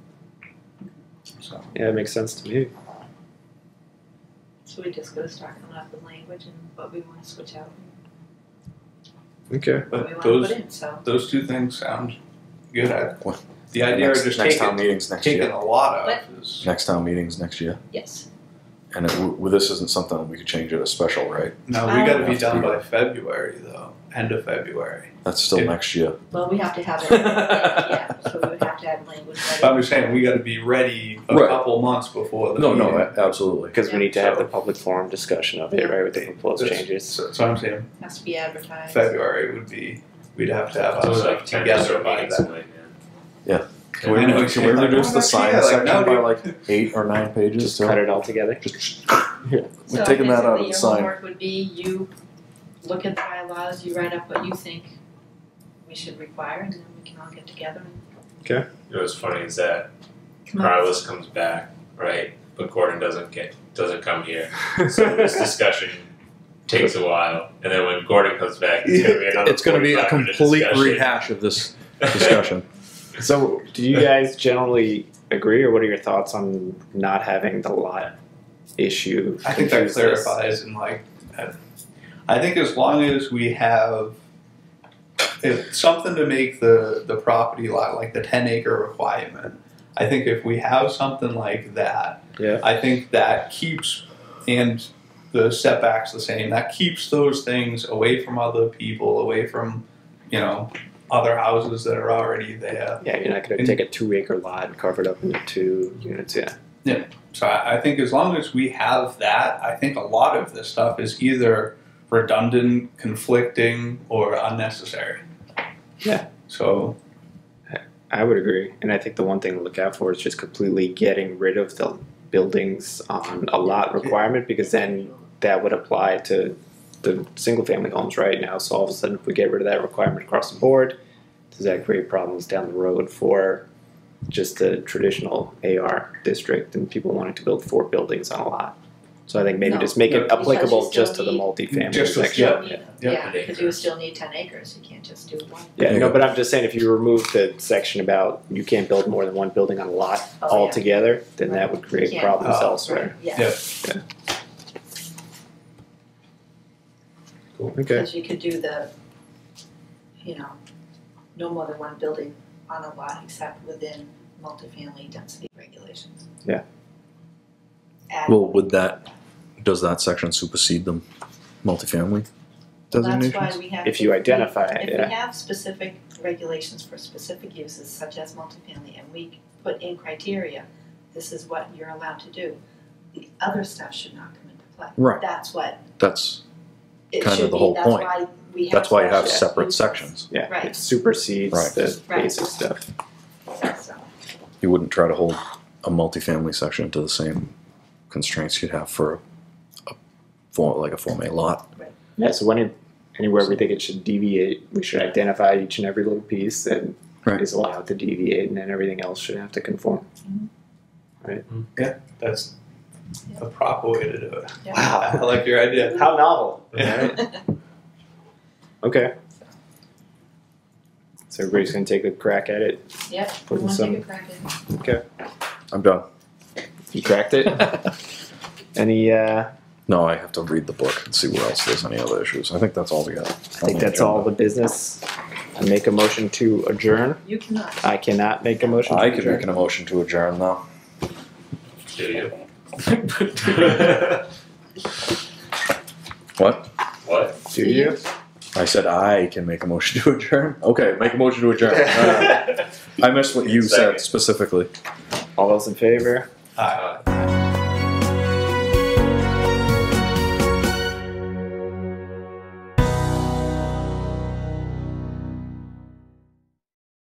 So, Yeah, it makes sense to me. So we just gotta start coming up with language and what we wanna switch out Okay. and what we but wanna those put in, so. those two things sound good. I, the idea next, of just next taking town meetings next taking year. a lot of What? is Next town meetings next year. Yes, And it, w- well, this isn't something that we could change at a special, right? no. Oh. We got to be Um, done by February though. End of February. That's still Yeah. next year. well, we have to have it, yeah, so we would have to have language ready. I'm just saying we got to be ready a Right. couple months before the No, no, meeting. a- absolutely. Because Yeah. we need to have the public forum discussion of it, right, with the proposed That's- changes. So, so I'm saying has to be advertised. February would be we'd have to have So our it's stuff like ten together different by meetings that. away, man. Can we, I know can it's we like, reduce oh, the yeah, sign like, section no, by dude. like eight or nine pages? Just too? cut it all together. We're taking that out of So basically, the sign. your homework would be you look at the bylaws, you write up what you think we should require, and then we can all get together and You know what's funny is that come up. Carlos comes back, right? But Gordon doesn't get doesn't come here. So this discussion takes a while, and then when Gordon comes back, it's gonna be another. It's going to be a 45 minute complete discussion. rehash of this discussion. So, do you guys generally agree, or what are your thoughts on not having the lot issue? I think that confuse this? clarifies and like, I- I think as long as we have if something to make the the property lot like the ten acre requirement. I think if we have something like that, Yeah. I think that keeps and the setbacks the same. That keeps those things away from other people, away from you know other houses that are already there. Yeah, you're not going to And- take a two acre lot and carve it up into two units. Yeah. So I, I think as long as we have that, I think a lot of this stuff is either redundant, conflicting, or unnecessary. Yeah. So I would agree. And I think the one thing to look out for is just completely getting rid of the buildings on a lot requirement because then that would apply to the single family homes right now. So all of a sudden, if we get rid of that requirement across the board, does that create problems down the road for just the traditional AR district and people wanting to build four buildings on a lot? So I think maybe No. just make No, it because you applicable still just to the need- multifamily Just to- section. yeah. You need- Yeah. Yeah, Yeah. because you would still need ten acres, you can't just do one. Yeah, Yeah. no, but I'm just saying if you remove the section about you can't build more than one building on a lot Oh, yeah. altogether, then that would create Can't. problems Oh, elsewhere. Yeah, Yeah. Okay. because you could do the, you know, no more than one building on a lot except within multifamily density regulations. Yeah. Add- Well, would that, does that section supersede the multifamily designations? That's why we have. If you to- identify it, If yeah. we have specific regulations for specific uses such as multifamily and we put in criteria, this is what you're allowed to do, the other stuff should not come into play. Right. That's what That's, it Kind of should the be, whole that's point. why we have. that's why you have special separate uses. sections. Yeah, Right. it supersedes Right. the Right. basic stuff. So, You wouldn't try to hold a multifamily section to the same constraints you'd have for a, for like a Form A lot. Yeah, so when it, anywhere we think it should deviate, we should identify each and every little piece that is Right. allowed to deviate, and then everything else should have to conform. that's the proper way to do it. yeah. I Wow, like your idea. how novel! Yeah. Okay. So everybody's gonna take a crack at it. Yep, we Putting wanna some- take a crack at it. I'm done. You cracked it. Any? uh No, I have to read the book and see where else there's any other issues. I think that's all we got. I think that's all the business. I make a motion to adjourn. You cannot. I cannot make a motion to I could adjourn. make an motion to adjourn though. Do you? What? what? Do you? I said I can make a motion to adjourn. Okay, make a motion to adjourn. Uh, No, no, no. I missed what you said Second. specifically. All those in favor? All right. Uh,